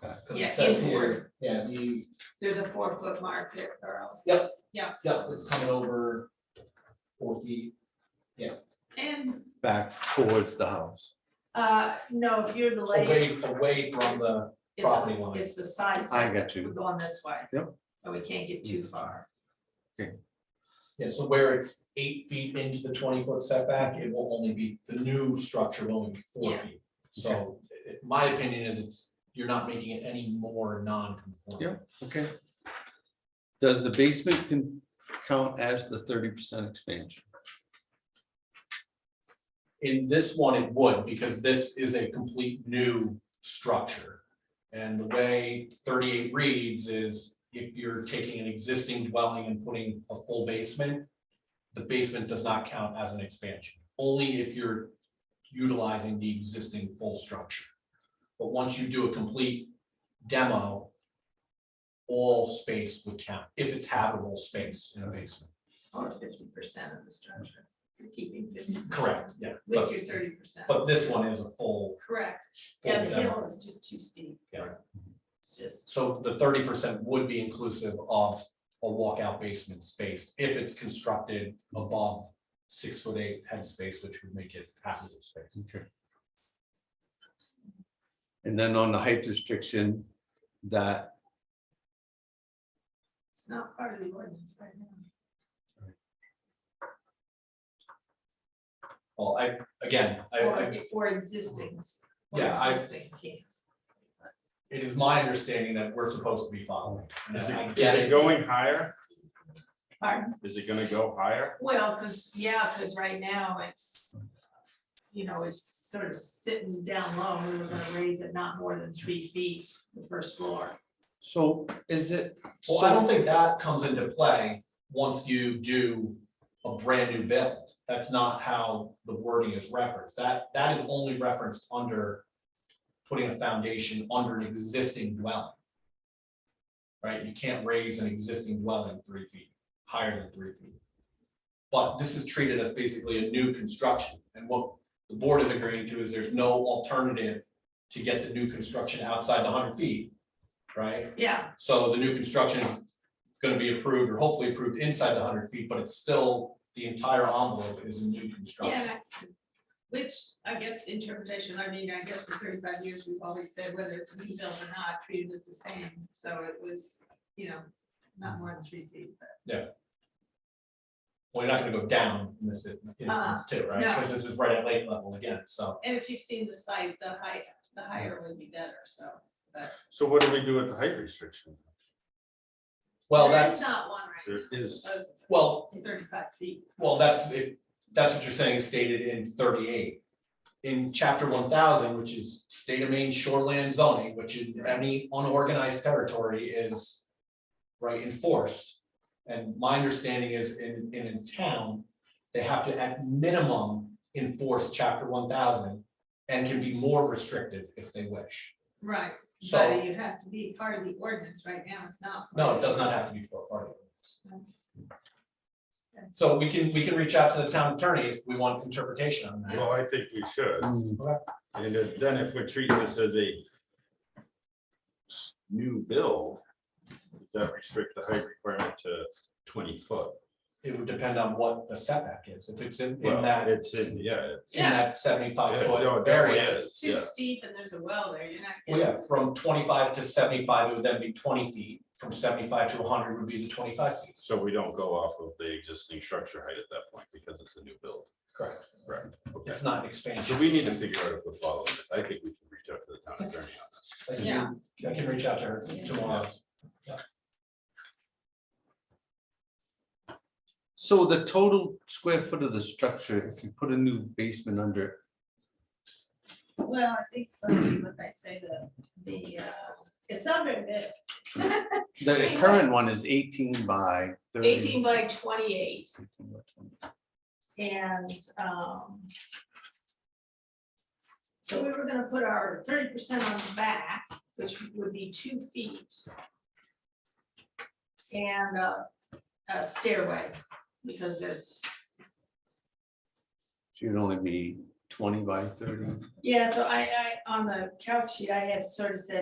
'cause Yeah, it says inward. here, yeah, you, There's a four foot mark there, Carl. yeah, it's coming over four feet. And, back towards the house. uh, no, if you're the Away, lady, away from the it's, property line. it's the side I setback. got We're you. going this way. Yep. But we can't get Mm. too far. Yeah, so where it's eight feet into the twenty foot setback, it will only be, the new structure will only be four Yeah. feet. So i- i- my opinion is it's, you're not making it any more non-conforming. Yeah. Okay. Does the basement can count as the thirty percent expansion? In this one, it would, because this is a complete new structure. And the way thirty-eight reads is if you're taking an existing dwelling and putting a full basement, the basement does not count as an expansion, only if you're utilizing the existing full structure. But once you do a complete demo, all space would count, if it's habitable space in a basement. Or fifty percent of the structure. You're keeping fifty Correct, yeah. with but- your thirty percent. But this one is a full, Correct. full Yeah, demo. the hill is just too steep. Yeah. It's just, So the thirty percent would be inclusive of a walkout basement space if it's constructed above six foot eight head space, which would make it habitable space. Okay. And then on the height restriction, that, it's not part of the ordinance right now. Well, I, again, I, I, Or, or existings. or Yeah, I- Existing can't. it is my understanding that we're supposed to be following. And Is I it, is get it it. going higher? Pardon? Is it gonna go higher? Well, cause, yeah, cause right now it's, you know, it's sort of sitting down low, we were gonna raise it not more than three feet, the first floor. so is it? Well, I so- don't think that comes into play once you do a brand new build. That's not how the wording is referenced. That, that is only referenced under putting a foundation under an existing dwelling. Right? You can't raise an existing dwelling three feet, higher than three feet. But this is treated as basically a new construction. And what the board is agreeing to is there's no alternative to get the new construction outside the hundred feet, right? Yeah, So the new construction is gonna be approved or hopefully approved inside the hundred feet, but it's still, the entire envelope is a new construction. yeah, which I guess interpretation, I mean, I guess for thirty-five years, we've always said whether it's new build or not, treated it the same, so it was, you know, not more than three feet, but Well, you're not gonna go down in this Uh-uh, instance too, right? no. Because this is right at lake level again, so. and if you've seen the site, the height, the higher would be better, so. So what do we do with the height restriction? Well, There is that's, Not one right There is, now, well, of thirty-five feet, well, that's if, that's what you're saying is stated in thirty-eight. In chapter one thousand, which is state of Maine shoreland zoning, which is any unorganized territory is right, enforced. And my understanding is in, in a town, they have to at minimum enforce chapter one thousand and can be more restrictive if they wish. right. So, But you have to be part of the ordinance right now, it's not. no, it does not have to be for a party. That's- So we can, we can reach out to the town attorney if we want interpretation on that. well, I think we should, Mm, and if- then if we treat this as a new build, does that restrict the height requirement to twenty foot? It would depend on what the setback is, if it's in, in Well, that, It's in, yeah, it's, in that seventy-five Yeah, no, foot it definitely area. is. It's too Yeah. steep and there's a well there, you're not. Well, yeah, getting- from twenty-five to seventy-five, it would then be twenty feet, from seventy-five to hundred would be the twenty-five feet. so we don't go off of the existing structure height at that point because it's a new build. Correct. Correct. Okay, It's not an so expansion. we need to figure out if we follow this, I think we can reach out to the town attorney on this. I can- Yeah. I can reach out to her tomorrow. So the total square foot of the structure, if you put a new basement under, it, Well, I think, let's see what they say, the, the, uh, it's under mid, the current one is eighteen by thirty. eighteen by twenty-eight 18 by 20. and, um. So we were gonna put our thirty percent on the back, which would be two feet. And a, a stairway, because it's So You'd only be twenty by thirty. Yeah, so I, I, on the couch sheet, I had sort of said